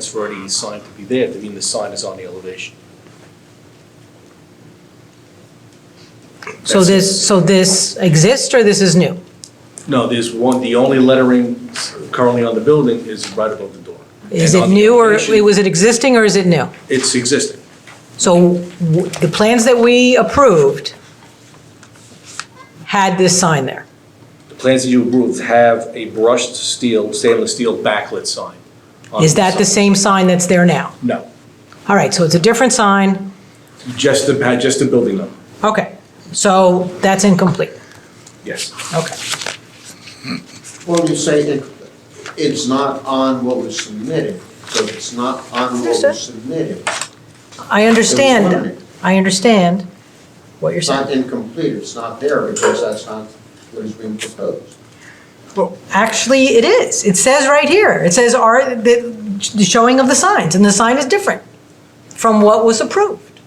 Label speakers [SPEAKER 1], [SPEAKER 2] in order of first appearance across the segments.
[SPEAKER 1] It's already signed to be there, I mean, the sign is on the elevation.
[SPEAKER 2] So this, so this exists or this is new?
[SPEAKER 1] No, there's one, the only lettering currently on the building is right above the door.
[SPEAKER 2] Is
[SPEAKER 1] And
[SPEAKER 2] it
[SPEAKER 1] on the
[SPEAKER 2] new or
[SPEAKER 1] elevation,
[SPEAKER 2] was it existing or is it new?
[SPEAKER 1] It's existing.
[SPEAKER 2] So w- the plans that we approved had this sign there.
[SPEAKER 1] The plans that you approved have a brushed steel, stainless steel backlit sign. on
[SPEAKER 2] Is that the
[SPEAKER 1] side.
[SPEAKER 2] same sign that's there now?
[SPEAKER 1] No,
[SPEAKER 2] All right, so it's a different sign.
[SPEAKER 1] just the, pa- just the building number,
[SPEAKER 2] Okay, so that's incomplete.
[SPEAKER 1] yes.
[SPEAKER 2] Okay.
[SPEAKER 3] Well, you say it, it's not on what was submitted, so if it's not on what
[SPEAKER 2] Understood.
[SPEAKER 3] was submitted,
[SPEAKER 2] I understand,
[SPEAKER 3] limited.
[SPEAKER 2] I understand what you're
[SPEAKER 3] it's
[SPEAKER 2] saying.
[SPEAKER 3] not incomplete, it's not there because that's not what is being proposed.
[SPEAKER 2] Well, Actually, it is. It says right here, it says are, the, the showing of the signs, and the sign is different from what was approved.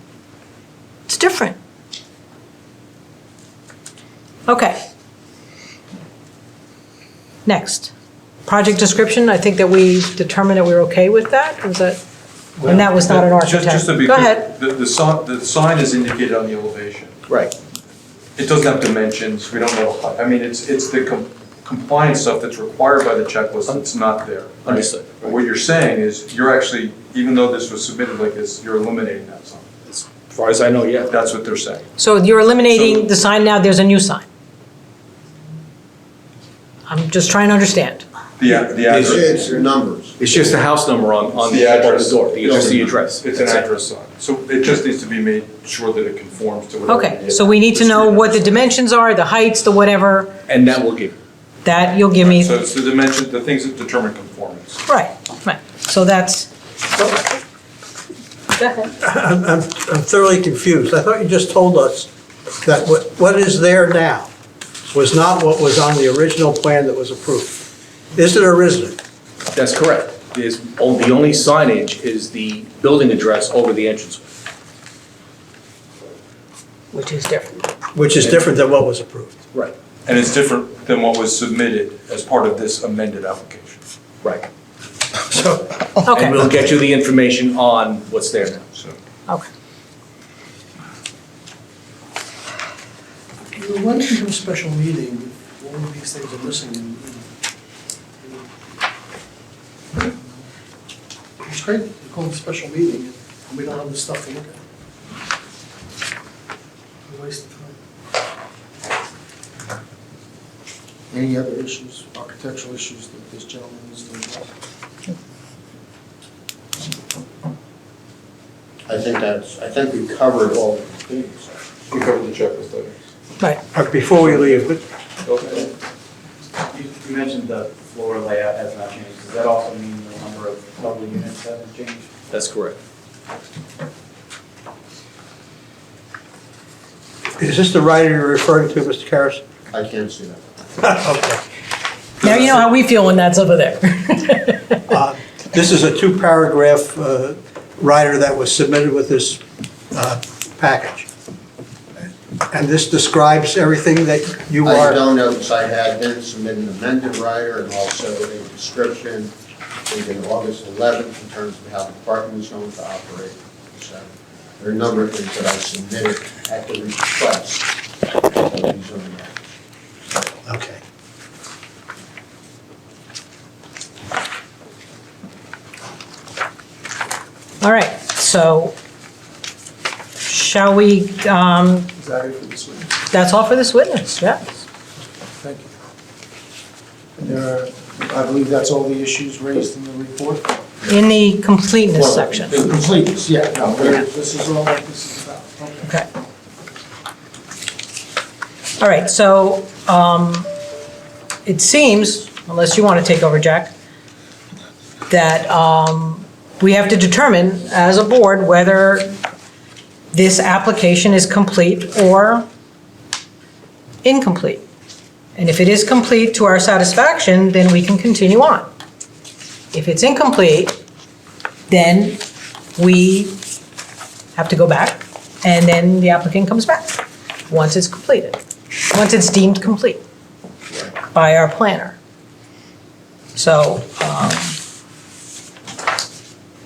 [SPEAKER 2] It's different. Okay. Next, project description, I think that we determined that we were okay with that, was that? And that was not an
[SPEAKER 4] Just-
[SPEAKER 2] architect.
[SPEAKER 4] Just to be
[SPEAKER 2] Go ahead.
[SPEAKER 4] clear, the, the sign, the sign is indicated on the elevation.
[SPEAKER 3] Right.
[SPEAKER 4] It doesn't have dimensions, we don't know, I mean, it's, it's the com- compliance stuff that's required by the checklist, it's not there. right?
[SPEAKER 1] Understood.
[SPEAKER 4] But What you're saying is, you're actually, even though this was submitted like this, you're eliminating that sign.
[SPEAKER 1] As far as I know, yeah.
[SPEAKER 4] That's what they're saying.
[SPEAKER 2] So you're eliminating
[SPEAKER 4] So-
[SPEAKER 2] the sign now, there's a new sign. I'm just trying to understand.
[SPEAKER 4] The, a- the
[SPEAKER 3] It's,
[SPEAKER 4] address,
[SPEAKER 3] it's your numbers.
[SPEAKER 1] It's just the house number on, on the,
[SPEAKER 4] The
[SPEAKER 1] on the
[SPEAKER 4] address.
[SPEAKER 1] door, the- just the address.
[SPEAKER 4] it's an
[SPEAKER 1] That's it.
[SPEAKER 4] address sign, so it just needs to be made sure that it conforms to whatever.
[SPEAKER 2] Okay, so we need to know what the dimensions are, the heights, the whatever,
[SPEAKER 1] And that will give you.
[SPEAKER 2] that you'll give me.
[SPEAKER 4] So it's the dimension, the things that determine conformance.
[SPEAKER 2] Right, right, so that's. Go ahead.
[SPEAKER 5] I'm, I'm I'm thoroughly confused. I thought you just told us that what, what is there now was not what was on the original plan that was approved. Is it or isn't it?
[SPEAKER 1] That's correct. There's, oh, the only signage is the building address over the entrance.
[SPEAKER 2] Which is different.
[SPEAKER 5] Which is different than what was approved.
[SPEAKER 1] Right.
[SPEAKER 4] And it's different than what was submitted as part of this amended application.
[SPEAKER 1] Right.
[SPEAKER 5] So,
[SPEAKER 1] And
[SPEAKER 2] Okay,
[SPEAKER 1] we'll get you the information on what's there now.
[SPEAKER 4] So
[SPEAKER 2] okay.
[SPEAKER 6] Well, Why didn't you have a special meeting if all of these things are missing? and, you know? It's great, you call it a special meeting, and we don't have the stuff to look at. A waste of time.
[SPEAKER 3] Any other issues, architectural issues that this gentleman is to address? I think that's, I think we covered all the things.
[SPEAKER 4] we covered the checklist items.
[SPEAKER 2] Right,
[SPEAKER 5] uh, before we leave, but
[SPEAKER 7] You you mentioned the floor layout has not changed. Does that also mean the number of level units hasn't changed?
[SPEAKER 1] That's correct.
[SPEAKER 5] is this the writer you're referring to, Mr. Karas?
[SPEAKER 3] I can't see that.
[SPEAKER 5] Okay.
[SPEAKER 2] now you know how we feel when that's over there.
[SPEAKER 5] Uh, This is a two-paragraph uh, rider that was submitted with this uh, package. And this describes everything that you are.
[SPEAKER 3] I don't know, because I had then submitted an amended rider and also a description dated August 11th in terms of how the parking is going to operate. So there are a number of things that I submitted at the request of the zoning office.
[SPEAKER 5] Okay.
[SPEAKER 2] All right, so shall we, um,
[SPEAKER 6] Is that it for this week?
[SPEAKER 2] that's all for this witness, yeah?
[SPEAKER 6] Thank you. And There are, I believe that's all the issues raised in the report?
[SPEAKER 2] In the completeness section,
[SPEAKER 3] The completeness, yeah, no, there-
[SPEAKER 6] This is all that this is about. Okay.
[SPEAKER 2] okay. All right, so, um, it seems, unless you want to take over, Jack, that, um, we have to determine as a board whether this application is complete or incomplete. And if it is complete to our satisfaction, then we can continue on. If it's incomplete, then we have to go back, and then the applicant comes back, once it's completed, once it's deemed complete by our planner. So, um,